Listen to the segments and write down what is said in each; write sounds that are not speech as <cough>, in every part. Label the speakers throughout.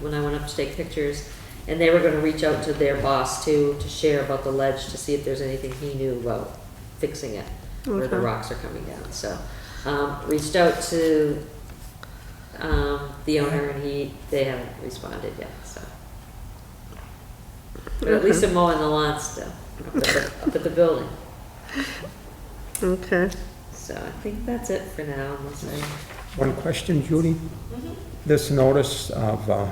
Speaker 1: when I went up to take pictures. And they were gonna reach out to their boss too, to share about the ledge, to see if there's anything he knew about fixing it, where the
Speaker 2: Okay.
Speaker 1: rocks are coming down, so. Um, reached out to, um, the owner and he, they haven't responded yet, so. But at least
Speaker 2: Okay.
Speaker 1: they're mowing the lawn still, up at the- up at the building.
Speaker 2: Okay.
Speaker 1: So I think that's it for now, unless I,
Speaker 3: One question, Judy?
Speaker 1: Mm-hmm.
Speaker 3: This notice of uh,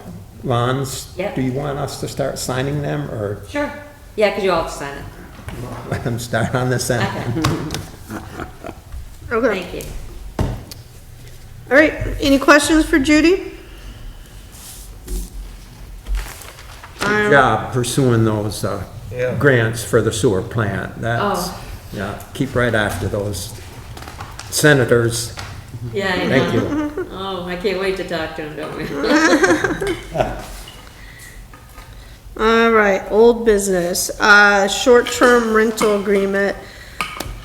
Speaker 3: lawns?
Speaker 1: Yep.
Speaker 3: Do you want us to start signing them or <laughs>
Speaker 1: sure, yeah, because you all have to sign it.
Speaker 3: let them start on this end?
Speaker 1: Okay,
Speaker 2: Okay.
Speaker 1: thank you.
Speaker 2: All right, any questions for Judy? Um,
Speaker 3: Good job pursuing those uh, grants for the sewer plant. That's,
Speaker 1: Oh.
Speaker 3: yeah, keep right after those senators.
Speaker 1: Yeah, I
Speaker 3: Thank
Speaker 1: know.
Speaker 3: you.
Speaker 1: <laughs> Oh, I can't wait to talk to him, don't we?
Speaker 2: All right, old business, uh, short-term rental agreement.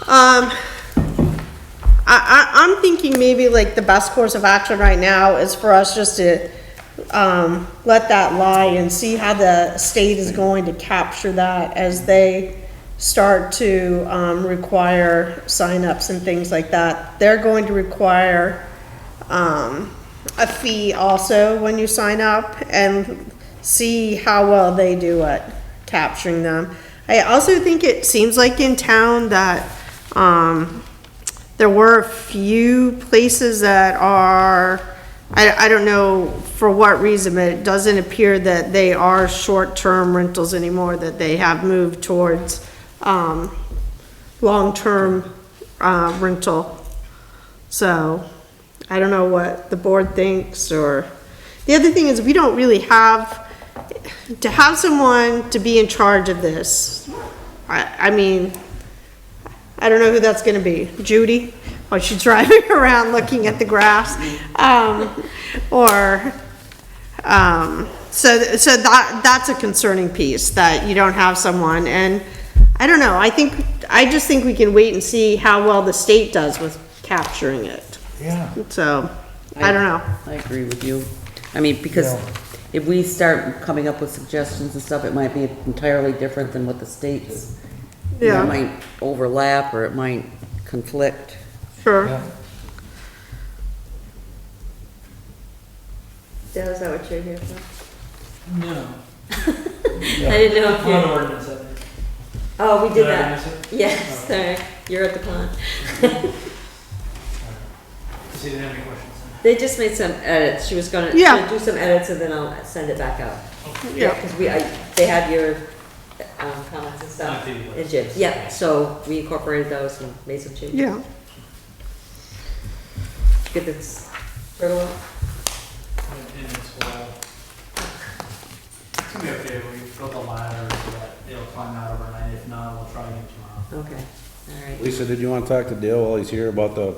Speaker 2: Um, I, I, I'm thinking maybe like the best course of action right now is for us just to, um, let that lie and see how the state is going to capture that as they start to, um, require signups and things like that. They're going to require, um, a fee also when you sign up and see how well they do at capturing them. I also think it seems like in town that, um, there were a few places that are, I, I don't know for what reason, but it doesn't appear that they are short-term rentals anymore, that they have moved towards, um, long-term, uh, rental. So, I don't know what the board thinks, or, the other thing is, we don't really have, to have someone to be in charge of this, I, I mean, I don't know who that's gonna be, Judy? Or she's <laughs> driving around looking at the graphs, um, or, um, so, th- so that, that's a concerning piece, that you don't have someone, and I don't know, I think, I just think we can wait and see how well the state does with capturing it.
Speaker 4: Yeah.
Speaker 2: So, I don't know.
Speaker 5: I agree with you. I mean, because
Speaker 4: Yeah.
Speaker 5: if we start coming up with suggestions and stuff, it might be entirely different than what the states. you know,
Speaker 2: Yeah.
Speaker 5: It might overlap or it might conflict.
Speaker 2: Sure.
Speaker 4: Yeah.
Speaker 1: <laughs> Dale, is that what you're here for?
Speaker 6: <laughs> No.
Speaker 1: I didn't know if
Speaker 6: I'm an
Speaker 1: you,
Speaker 6: ordinance, I think.
Speaker 1: oh, we did
Speaker 6: Did I
Speaker 1: that. Oh.
Speaker 6: miss it?
Speaker 1: Yes, sorry, you're at the pond. <laughs>
Speaker 6: See, didn't have any questions.
Speaker 1: They just made some edits, she was gonna,
Speaker 2: Yeah.
Speaker 1: she'll do some edits and then I'll send it back out.
Speaker 2: Yeah.
Speaker 1: Because we, I, they had your, um, comments and
Speaker 6: Not
Speaker 1: stuff.
Speaker 6: the-
Speaker 1: And Jim's, yeah, so we incorporated those and made some changes.
Speaker 2: Yeah.
Speaker 1: Get this, fertile.
Speaker 6: And it's, well, it's gonna be okay, we built a ladder so that it'll climb out overnight, if not, we'll try again tomorrow.
Speaker 1: okay, all right.
Speaker 7: Lisa, did you want to talk to Dale while he's here about the?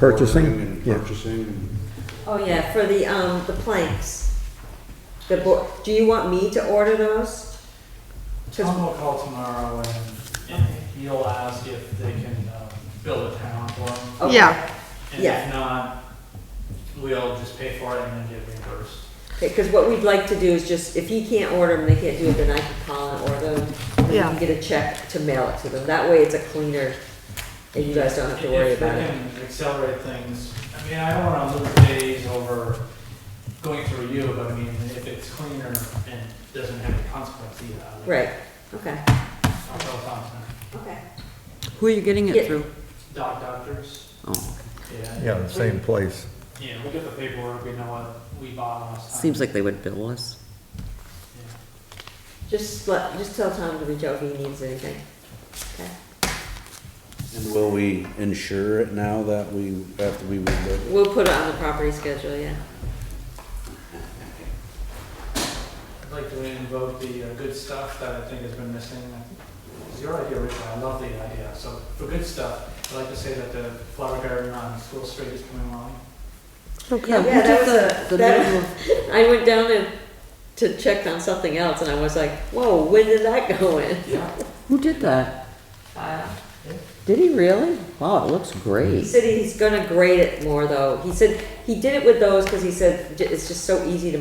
Speaker 7: ordering
Speaker 3: Purchasing?
Speaker 7: and
Speaker 3: Yeah.
Speaker 7: Purchasing and
Speaker 1: Oh, yeah, for the, um, the planks. The bo, do you want me to order those? 'Cause-
Speaker 6: Tom will call tomorrow and, and he'll ask if they can, uh, build a town for him.
Speaker 1: okay.
Speaker 2: Yeah,
Speaker 6: And
Speaker 1: Yeah.
Speaker 6: if not, we'll just pay for it and then get reimbursed.
Speaker 1: Because what we'd like to do is just, if he can't order them, they can't do it, then I can call and order them. And we
Speaker 2: Yeah.
Speaker 1: can get a check to mail it to them. That way it's a cleaner, and you guys don't have to worry
Speaker 6: If we
Speaker 1: about it.
Speaker 6: can accelerate things, I mean, I don't wanna lose days over going through you, but I mean, if it's cleaner and doesn't have any consequence either. I would-
Speaker 1: Right, okay,
Speaker 6: I'll tell Thompson,
Speaker 1: okay.
Speaker 5: Who are you getting
Speaker 1: Yeah.
Speaker 5: it through?
Speaker 6: doc doctors,
Speaker 5: Oh,
Speaker 6: yeah,
Speaker 8: Yeah, the same place.
Speaker 6: yeah, we get the paperwork, we know what we bought last time.
Speaker 5: Seems like they would bill us.
Speaker 6: Yeah.
Speaker 1: Just let, just tell Tom to reach out if he needs anything. Okay.
Speaker 7: and will we insure it now that we, after we rebuild it?
Speaker 1: We'll put it on the property schedule, yeah. <laughs>
Speaker 6: I'd like to invoke the uh, good stuff that I think has been missing. It's your idea, Rachel, I love the idea. So for good stuff, I'd like to say that the flower garden on School Street is coming along.
Speaker 1: Yeah,
Speaker 5: who
Speaker 1: that
Speaker 5: took
Speaker 1: was
Speaker 5: the-
Speaker 1: a-
Speaker 5: the
Speaker 1: that- I went down to, to check on something else and I was like, whoa, when did that go in?
Speaker 6: Yeah.
Speaker 5: Who did that? Did he really? Wow, it looks
Speaker 1: He
Speaker 5: great.
Speaker 1: said he's gonna grade it more though. He said, he did it with those because he said, "J- it's just so easy to